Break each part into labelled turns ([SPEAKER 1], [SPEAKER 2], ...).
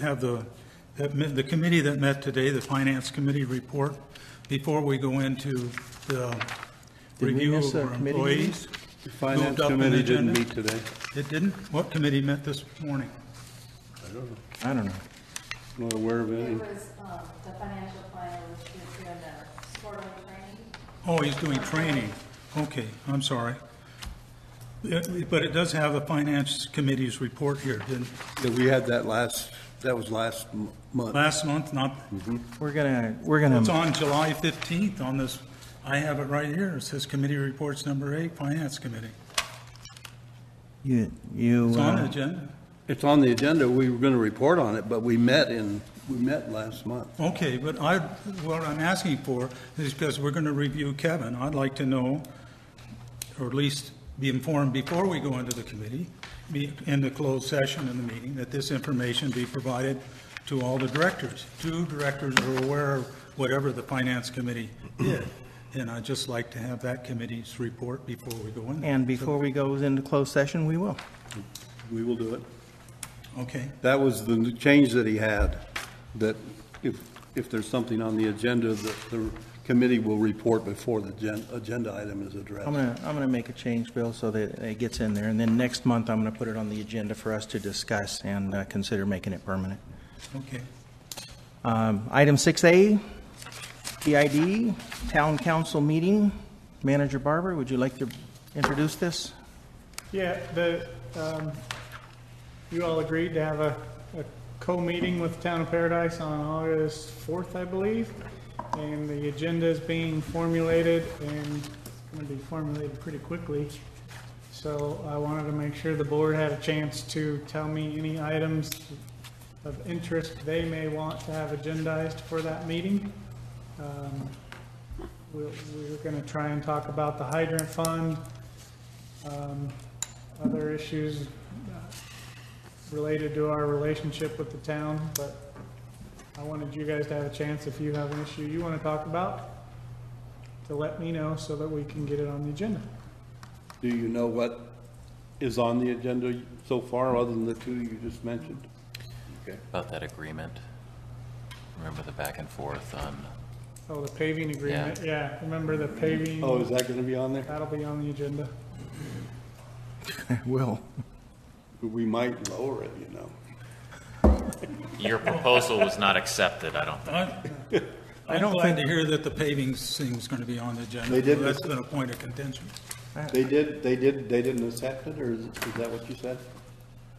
[SPEAKER 1] have the, that met- the committee that met today, the Finance Committee report, before we go into the
[SPEAKER 2] Did we
[SPEAKER 1] review of
[SPEAKER 2] miss a
[SPEAKER 1] our
[SPEAKER 2] committee meeting?
[SPEAKER 1] employees.
[SPEAKER 2] The Finance
[SPEAKER 1] Moved up in
[SPEAKER 2] Committee didn't
[SPEAKER 1] agenda.
[SPEAKER 2] meet today.
[SPEAKER 1] It didn't? What committee met this morning?
[SPEAKER 2] I don't know. Not aware of
[SPEAKER 3] It
[SPEAKER 2] any.
[SPEAKER 3] was, um, the financial planner was doing the quarterly uh, training.
[SPEAKER 1] Oh, he's doing training. Okay, I'm sorry. It- But it does have a Finance Committee's report here, didn't,
[SPEAKER 4] Yeah, we had that last, that was last m- month.
[SPEAKER 1] last month, not,
[SPEAKER 2] We're gonna, we're
[SPEAKER 1] It's
[SPEAKER 2] gonna,
[SPEAKER 1] on July 15th on this, I have it right here. It says committee reports number eight, finance committee.
[SPEAKER 2] you, you,
[SPEAKER 1] It's on the
[SPEAKER 2] uh,
[SPEAKER 1] agenda.
[SPEAKER 4] It's on the agenda, we were going to report on it, but we met in, we met last month.
[SPEAKER 1] Okay, but I, what I'm asking for is because we're going to review Kevin. I'd like to know, or at least be informed before we go into the committee, be in the closed session in the meeting, that this information be provided to all the directors. Two directors are aware of whatever the finance committee did. And I'd just like to have that committee's report before we go in. there.
[SPEAKER 2] and before we go into closed session, we will.
[SPEAKER 4] We will do it.
[SPEAKER 1] Okay.
[SPEAKER 4] That was the n- change that he had, that if, if there's something on the agenda, that the committee will report before the gen- agenda item is
[SPEAKER 2] I'm
[SPEAKER 4] addressed.
[SPEAKER 2] gonna, I'm gonna make a change, Bill, so that it gets in there, and then next month, I'm gonna put it on the agenda for us to discuss and uh, consider making it permanent.
[SPEAKER 1] Okay,
[SPEAKER 2] Um, Item 6A, PID, Town Council Meeting. Manager Barber, would you like to introduce this?
[SPEAKER 5] Yeah, the, um, you all agreed to have a, a co-meeting with Town of Paradise on August fourth, I believe. And the agenda is being formulated and it's gonna be formulated pretty quickly. So I wanted to make sure the board had a chance to tell me any items of interest they may want to have agendized for that meeting. Um, We, we were gonna try and talk about the hydrant fund, um, other issues uh, related to our relationship with the town, but I wanted you guys to have a chance, if you have an issue you want to talk about, to let me know so that we can get it on the agenda.
[SPEAKER 4] Do you know what is on the agenda so far, other than the two you just mentioned?
[SPEAKER 6] About that agreement, remember the back and forth on,
[SPEAKER 5] Oh, the paving agreement, yeah, remember the paving,
[SPEAKER 4] Oh, is that going to be on there?
[SPEAKER 5] that'll be on the agenda.
[SPEAKER 2] Will.
[SPEAKER 4] We might lower it, you know.
[SPEAKER 7] Your proposal was not accepted, I don't think.
[SPEAKER 1] I- I'm glad to hear that the paving thing's going to be on the agenda.
[SPEAKER 4] They did-
[SPEAKER 1] That's been a point of contention.
[SPEAKER 4] They did, they did, they didn't accept it, or is is that what you said?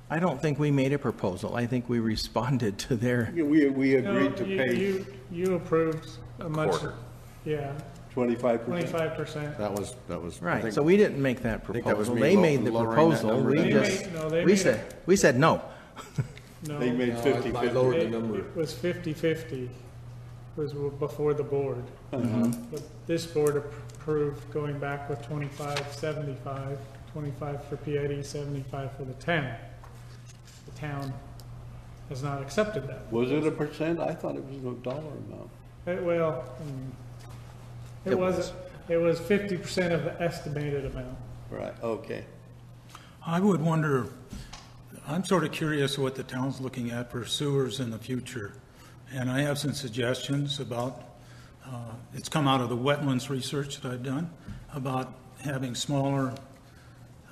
[SPEAKER 2] I don't think we made a proposal. I think we responded to their,
[SPEAKER 4] Yeah, We, we agreed to
[SPEAKER 5] No, you-
[SPEAKER 4] pay
[SPEAKER 5] You, you approved a much.
[SPEAKER 7] quarter.
[SPEAKER 5] Yeah,
[SPEAKER 4] twenty-five percent.
[SPEAKER 5] twenty-five percent.
[SPEAKER 8] That was, that was. I
[SPEAKER 2] right,
[SPEAKER 8] think-
[SPEAKER 2] so we didn't make that
[SPEAKER 8] think that was
[SPEAKER 2] proposal.
[SPEAKER 8] me
[SPEAKER 2] They
[SPEAKER 8] lo-
[SPEAKER 2] made the
[SPEAKER 8] lowering that
[SPEAKER 2] proposal,
[SPEAKER 8] number
[SPEAKER 2] we
[SPEAKER 8] down.
[SPEAKER 2] just,
[SPEAKER 5] They made- no, they
[SPEAKER 2] we
[SPEAKER 5] made
[SPEAKER 2] said, we said no.
[SPEAKER 5] No,
[SPEAKER 4] They made fifty-fifty.
[SPEAKER 5] it it was fifty-fifty, was before the board. But this board approved going back with 25, 75, 25 for PID, 75 for the town. The town has not accepted that.
[SPEAKER 4] Was it a percent? I thought it was a dollar amount.
[SPEAKER 5] It- Well, mm, it
[SPEAKER 2] It
[SPEAKER 5] was, it was 50% of the estimated amount.
[SPEAKER 4] Right, okay.
[SPEAKER 1] I would wonder, I'm sort of curious what the town's looking at for sewers in the future. And I have some suggestions about, uh, it's come out of the wetlands research that I've done, about having smaller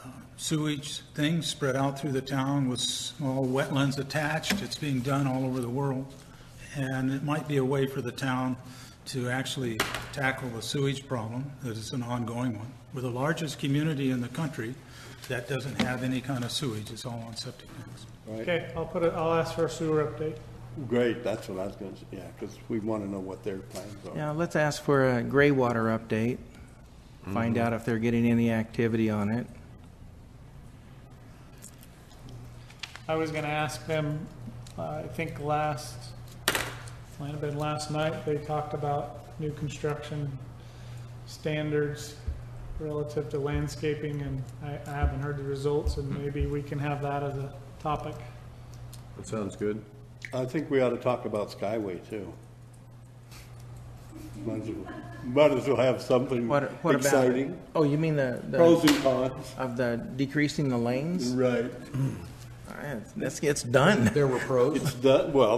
[SPEAKER 1] uh, sewage things spread out through the town with small wetlands attached. It's being done all over the world. And it might be a way for the town to actually tackle the sewage problem, that is an ongoing one. We're the largest community in the country that doesn't have any kind of sewage, it's all on septic tanks.
[SPEAKER 5] Okay, I'll put it, I'll ask for a sewer update.
[SPEAKER 4] Great, that's what I was gonna say, yeah, because we want to know what their plans are.
[SPEAKER 2] Yeah, let's ask for a gray water update, find out if they're getting any activity on it.
[SPEAKER 5] I was gonna ask them, uh, I think last, might have been last night, they talked about new construction standards relative to landscaping, and I, I haven't heard the results, and maybe we can have that as a topic.
[SPEAKER 8] That sounds good.
[SPEAKER 4] I think we ought to talk about Skyway, too. Might as well, might as well have something
[SPEAKER 2] What, what about?
[SPEAKER 4] exciting.
[SPEAKER 2] Oh, you mean the,
[SPEAKER 4] Pros
[SPEAKER 2] the,
[SPEAKER 4] and cons,
[SPEAKER 2] of the decreasing the lanes?
[SPEAKER 4] right.
[SPEAKER 9] All right, let's get done.
[SPEAKER 2] There were pros.
[SPEAKER 4] It's done, well,